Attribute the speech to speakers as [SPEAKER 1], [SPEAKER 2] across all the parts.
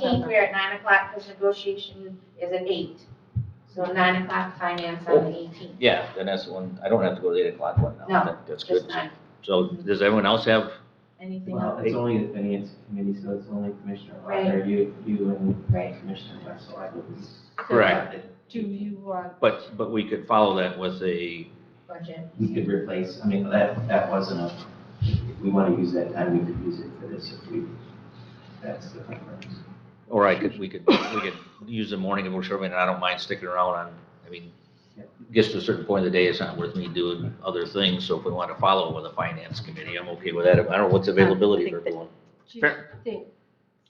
[SPEAKER 1] Fifteenth, we are at nine o'clock, because negotiation is at eight. So nine o'clock, finance
[SPEAKER 2] Oh.
[SPEAKER 1] on the eighteenth,
[SPEAKER 2] Yeah, then that's the one, I don't have to go to the eight o'clock one now.
[SPEAKER 1] No,
[SPEAKER 2] That- That's
[SPEAKER 1] just
[SPEAKER 2] good.
[SPEAKER 1] nine.
[SPEAKER 2] So does everyone else have,
[SPEAKER 1] Anything
[SPEAKER 3] Well,
[SPEAKER 1] else?
[SPEAKER 3] it's only the finance committee, so it's only Commissioner
[SPEAKER 1] Right.
[SPEAKER 3] Wagner, you, you and
[SPEAKER 1] Right.
[SPEAKER 3] Commissioner Wessel, I believe.
[SPEAKER 2] Correct.
[SPEAKER 4] Do you want?
[SPEAKER 2] but, but we could follow that with a,
[SPEAKER 1] Budget.
[SPEAKER 3] We could replace, I mean, that, that wasn't a, if we want to use that time, we could use it for this if we, that's the preference.
[SPEAKER 2] or I could, we could, we could use the morning of Sherman, and I don't mind sticking around on, I mean, gets to a certain point of the day, it's not worth me doing other things, so if we want to follow with a finance committee, I'm okay with that. I don't know what's availability for everyone.
[SPEAKER 4] do you
[SPEAKER 2] Fair.
[SPEAKER 4] think-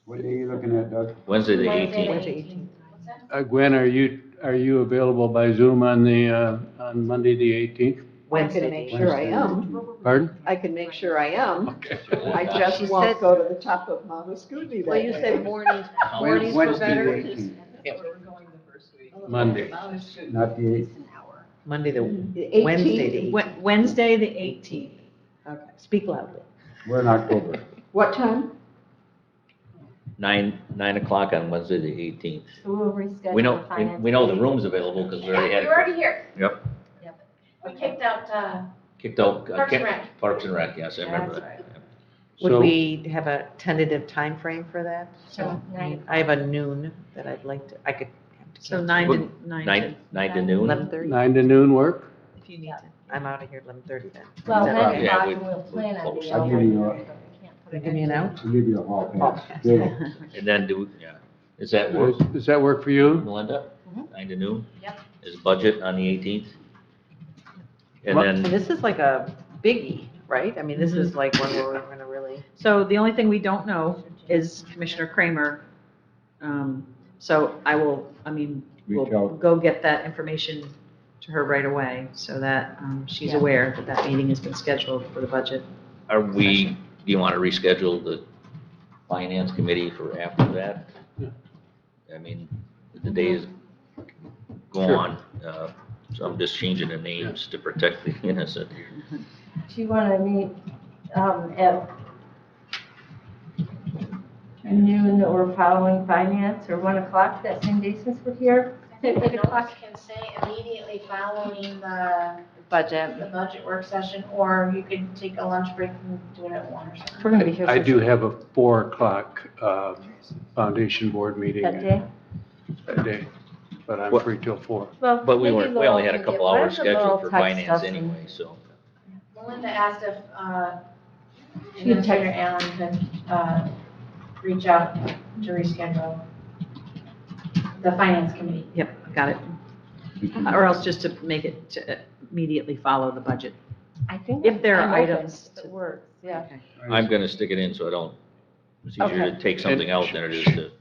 [SPEAKER 5] What day are you looking at, Doug?
[SPEAKER 2] Wednesday, the
[SPEAKER 1] Wednesday,
[SPEAKER 2] eighteenth.
[SPEAKER 1] the
[SPEAKER 6] Wednesday,
[SPEAKER 1] 18th. What's that?
[SPEAKER 5] Uh, Gwen, are you, are you available by Zoom on the, uh, on Monday, the eighteenth?
[SPEAKER 6] I can make sure I am.
[SPEAKER 5] Pardon?
[SPEAKER 6] I can make sure I am.
[SPEAKER 5] Okay.
[SPEAKER 7] Oh,
[SPEAKER 6] I just won't go to the top of Mount Escooty that
[SPEAKER 4] Well, you
[SPEAKER 6] day.
[SPEAKER 4] said mornings,
[SPEAKER 5] Wednesday,
[SPEAKER 4] mornings were better.
[SPEAKER 5] the eighteenth, Monday, not the eighth.
[SPEAKER 7] Monday, the,
[SPEAKER 6] The
[SPEAKER 7] Wednesday,
[SPEAKER 6] 18th.
[SPEAKER 7] the
[SPEAKER 4] Wed- Wednesday, the eighteenth.
[SPEAKER 6] Okay.
[SPEAKER 4] Speak loudly.
[SPEAKER 5] We're in October.
[SPEAKER 6] What time?
[SPEAKER 2] Nine, nine o'clock on Wednesday, the eighteenth.
[SPEAKER 4] We'll reschedule.
[SPEAKER 2] We know, we- we know the room's available because we
[SPEAKER 1] Yeah,
[SPEAKER 2] already
[SPEAKER 1] We're
[SPEAKER 2] had
[SPEAKER 1] already here.
[SPEAKER 2] Yep.
[SPEAKER 1] Yep. We kicked out, uh,
[SPEAKER 2] kicked out. uh,
[SPEAKER 1] Parks and
[SPEAKER 2] Ken-
[SPEAKER 1] Rec.
[SPEAKER 2] Parks and Rec, yes, I remember
[SPEAKER 1] That's
[SPEAKER 2] that.
[SPEAKER 7] would
[SPEAKER 5] So-
[SPEAKER 7] we have a tentative time frame for that?
[SPEAKER 1] so
[SPEAKER 4] Oh.
[SPEAKER 1] nine.
[SPEAKER 7] I have a noon that I'd like to, I could. have to cancel.
[SPEAKER 4] So nine to, nine to.
[SPEAKER 2] Nine, nine to noon?
[SPEAKER 7] Eleven thirty,
[SPEAKER 5] Nine to noon work?
[SPEAKER 4] If you need to.
[SPEAKER 7] I'm out of here eleven thirty then.
[SPEAKER 4] Well,
[SPEAKER 7] Is that
[SPEAKER 4] nine
[SPEAKER 7] okay?
[SPEAKER 4] o'clock
[SPEAKER 2] Yeah, we-
[SPEAKER 4] and we'll plan on
[SPEAKER 2] close.
[SPEAKER 4] the.
[SPEAKER 5] I'll give you a-
[SPEAKER 7] Give me an out.
[SPEAKER 5] I'll give you a hall
[SPEAKER 2] Oh,
[SPEAKER 5] pass. Good.
[SPEAKER 7] Well,
[SPEAKER 2] And then do, yeah, is that work,
[SPEAKER 5] Does does that work for you?
[SPEAKER 2] Melinda? Nine to noon?
[SPEAKER 1] Yep.
[SPEAKER 2] Is budget on the eighteenth? And
[SPEAKER 5] Well-
[SPEAKER 2] then,
[SPEAKER 7] This is like a biggie, right? I mean, this is like one where we're gonna really.
[SPEAKER 4] Mm-hmm. So the only thing we don't know is Commissioner Kramer. Um, So I will, I mean, we'll
[SPEAKER 5] Reach out.
[SPEAKER 4] go get that information to her right away so that um, she's aware that that meeting has been scheduled for the budget.
[SPEAKER 2] are we, do you want to reschedule the finance committee for after that?
[SPEAKER 5] Yeah.
[SPEAKER 2] I mean, the days go
[SPEAKER 5] Sure.
[SPEAKER 2] on, uh, so I'm just changing the names to protect the innocent here.
[SPEAKER 8] Do you want to meet um, at noon or following finance or 1 o'clock that same day since we're here?
[SPEAKER 1] I think the notes can say immediately following the,
[SPEAKER 4] Budget.
[SPEAKER 1] the budget work session, or you could take a lunch break and do it at one or something.
[SPEAKER 6] We're gonna be here.
[SPEAKER 5] I
[SPEAKER 6] for-
[SPEAKER 5] do have a four o'clock, uh, foundation board meeting
[SPEAKER 8] That day?
[SPEAKER 5] that day, but I'm
[SPEAKER 2] What-
[SPEAKER 5] free till four.
[SPEAKER 8] Well,
[SPEAKER 2] But we
[SPEAKER 8] maybe
[SPEAKER 2] were, we
[SPEAKER 8] Laurel
[SPEAKER 2] only had a
[SPEAKER 8] can
[SPEAKER 2] couple
[SPEAKER 8] get- why
[SPEAKER 2] hours
[SPEAKER 8] doesn't Laurel
[SPEAKER 2] scheduled for
[SPEAKER 8] text
[SPEAKER 2] finance
[SPEAKER 8] us and-
[SPEAKER 2] anyway, so.
[SPEAKER 1] Melinda asked if, uh, Administrator Allen could, uh, reach out to reschedule the finance committee.
[SPEAKER 4] Yep, got it. Or else just to make it to immediately follow the budget.
[SPEAKER 8] I think.
[SPEAKER 4] If there are
[SPEAKER 8] I'm open
[SPEAKER 4] items
[SPEAKER 8] if It
[SPEAKER 4] to-
[SPEAKER 8] works, yeah.
[SPEAKER 2] I'm gonna stick it in so I don't, it's easier to take something out than it is to.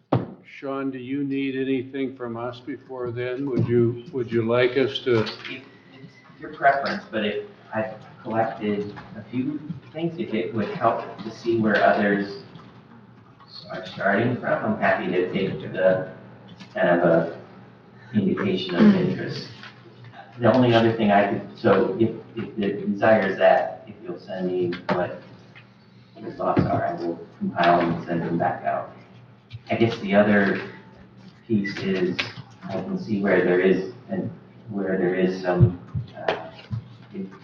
[SPEAKER 5] Sean, do you need anything from us before then? Would you, would you like us to?
[SPEAKER 3] It- it's Your preference, but if I've collected a few things, if it would help to see where others are starting from, I'm happy to take the kind of a indication of interest. The only other thing I could, so if, if the desire is that, if you'll send me what your thoughts are, I will compile and send them back out. I guess the other piece is, I can see where there is an where there is some uh,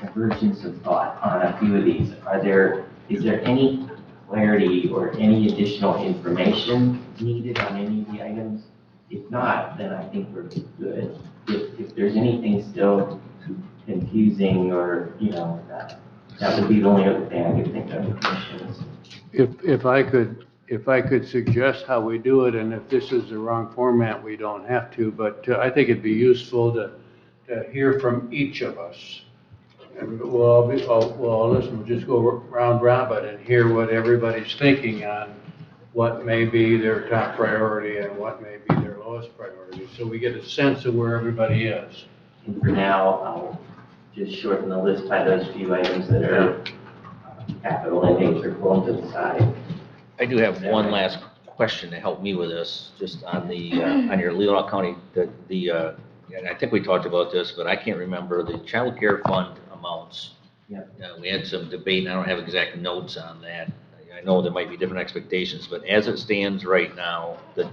[SPEAKER 3] divergence of thought on a few of these. Are there, is there any clarity or any additional information needed on any of the items? If not, then I think we're good. If, if there's anything still confusing or, you know, that, that would be the only other thing I could think of, Commissioners.
[SPEAKER 5] If, if I could, if I could suggest how we do it, and if this is the wrong format, we don't have to, but uh, I think it'd be useful to, to hear from each of us. And we'll, all be- all- we'll all listen, we'll just go round robin and hear what everybody's thinking on what may be their top priority and what may be their lowest priority, so we get a sense of where everybody is.
[SPEAKER 3] And for now, I'll just shorten the list by those few items that are uh, capital in nature, pull them to the side.
[SPEAKER 2] I do have one last question to help me with this, just on the, uh, on your Leland County, the, the, uh, and I think we talked about this, but I can't remember the child care fund amounts.
[SPEAKER 3] Yep.
[SPEAKER 2] Uh, We had some debate, and I don't have exact notes on that. I know there might be different expectations, but as it stands right now, the